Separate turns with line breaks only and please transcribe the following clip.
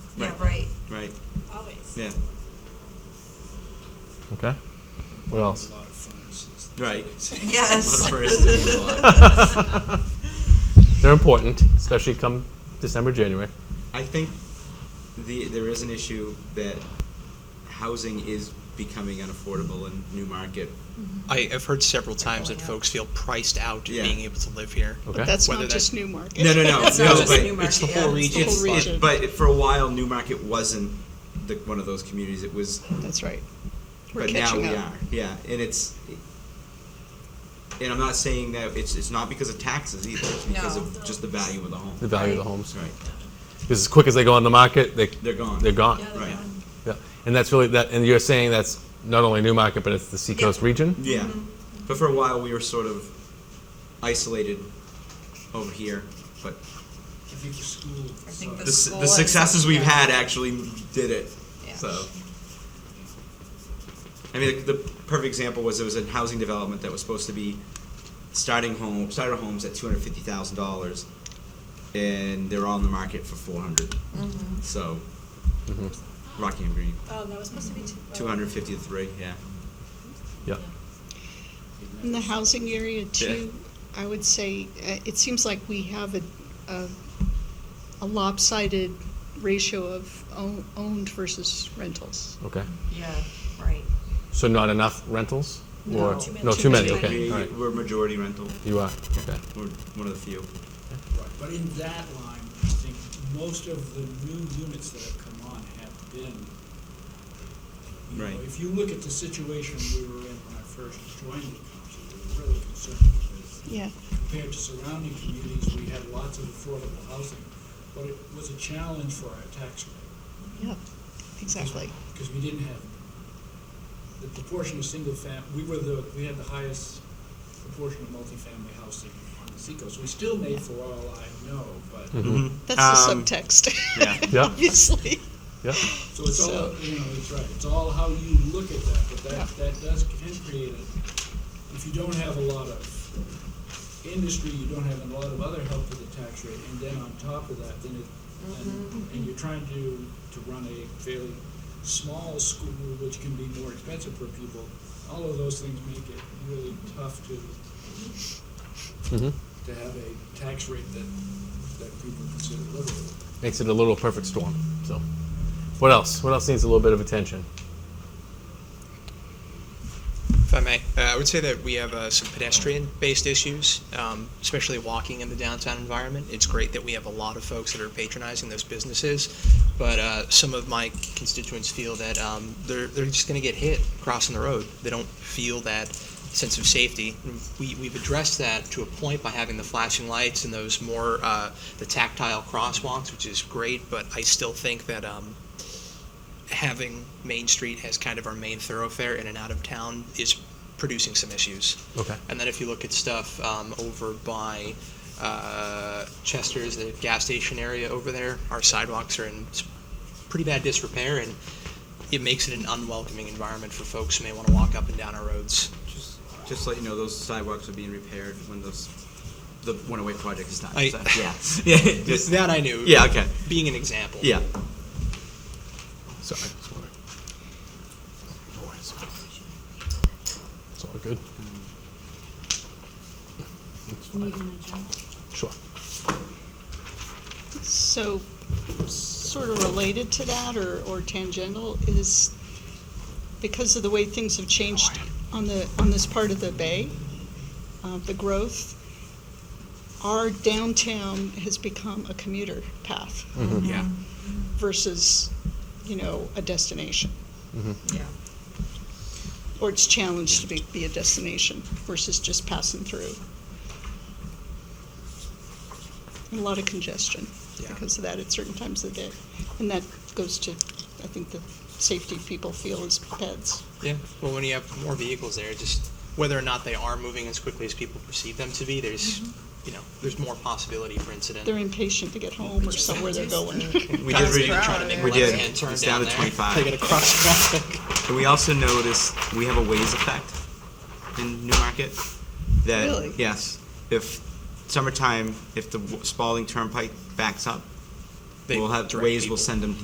Yeah.
Okay. What else?
Right.
Yes.
They're important, especially come December, January.
I think the there is an issue that housing is becoming unaffordable in New Market.
I, I've heard several times that folks feel priced out of
Yeah.
being able to live here.
Okay.
That's
Whether
not
that's-
just Newmarket.
No, no, no,
That's
no.
not just
but
Newmarket.
it's the
yeah,
whole
it's
region.
Whole
it-
region.
but for a while, New Market wasn't the, one of those communities. It was
That's right. We're
but now
catching
we
up.
are. Yeah, and it's. And I'm not saying that it's it's not because of taxes either. It's because
No.
of just the value of the home.
The value of the homes.
Right.
Because as quick as they go on the market, they
They're gone.
They're gone.
Yeah,
Yeah.
they're
Right.
gone.
And that's really that. And you're saying that's not only New Market, but it's the Seacoast region.
Yeah. But for a while, we were sort of isolated over here. But
I think the school.
I think
the,
The
s-
school
the
has-
successes we've
yeah.
had actually did it.
Yeah.
So. I mean, the, the perfect example was there was a housing development that was supposed to be starting home starter homes at two hundred fifty thousand dollars, and they're all in the market for four So,
Mm-hmm.
Rockingham Green,
Mm-hmm. Oh, that was supposed to be two.
two hundred fifty to three. Yeah.
Yeah.
In the housing area too, I would say, uh, it seems like we have a, a- a lopsided ratio of own- owned versus rentals.
Oh.
Okay.
Yeah, right.
So not enough rentals, or
No, too
no,
many.
too many.
Too
Okay.
We,
All right.
We're majority rental.
You are. Okay.
We're one of the few.
Right, But in that line, I think most of the new units that have come on have been. you know,
Right.
If you look at the situation we were in when I first joined the council, we were really concerned with
Yeah.
compared to surrounding communities, we had lots of affordable housing, but it was a challenge for our tax rate.
Yeah, exactly.
Because we didn't have, the proportion of single fam, we were the, we had the highest proportion of multifamily housing on the seacoast. We still made for all I know, but,
That's the
Um,
subtext.
yeah.
Yeah.
Obviously.
Yeah.
so it's all,
So-
you know, it's right, it's all how you look at that, but that, that does, can create it. If you don't have a lot of industry, you don't have a lot of other help with the tax rate, and then on top of that, then it, and, and you're trying to, to run a fairly small school, which can be more expensive for people, all of those things make it really tough to,
hmm
to have a tax rate that, that people consider livable.
Makes it a little perfect storm. So, what else? What else needs a little bit of attention?
If I may, uh, I would say that we have uh, some pedestrian-based issues, um, especially walking in the downtown environment. It's great that we have a lot of folks that are patronizing those businesses, but uh, some of my constituents feel that um, they're they're just going to get hit crossing the road. They don't feel that sense of safety. We we've addressed that to a point by having the flashing lights and those more uh, the tactile crosswalks, which is great. But I still think that. Um, having Main Street as kind of our main thoroughfare in and out of town is producing some issues.
Okay.
And then if you look at stuff um, over by uh, Chester's, the gas station area over there, our sidewalks are in s- pretty bad disrepair, and it makes it an unwelcoming environment for folks who may want to walk up and down our roads.
Just, just to let you know, those sidewalks are being repaired when those, the one away project is done.
I-
so, yeah, yeah, just,
that I knew.
yeah, okay,
Being an example.
yeah.
Sorry. It's all right. No worries. It's all good. It's fine. Sure.
So, sort of related to that or, or tangential is because of the way things have changed on the, on this part of the bay, uh, the growth, our downtown has become a commuter path
Mm-hmm.
Yeah.
versus, you know, a destination.
Yeah.
Or it's challenged to be, be a destination versus just passing through. And A lot of congestion
Yeah.
because of that at certain times of the day. And that goes to, I think, the safety people feel as pets.
Yeah. Well, when you have more vehicles there, just whether or not they are moving as quickly as people perceive them to be, there's, you know, there's more possibility for incident.
They're impatient to get home or somewhere they're going.
We did, re-
trying to make
we
a left
did,
hand turn
it's down
down
to
there.
twenty-five.
They gotta cross traffic.
And we also noticed we have a ways effect in Newmarket. That
Really?
yes, if summertime, if the Spalding Turnpike backs up,
They
we'll have
direct
ways.
people.
We'll send them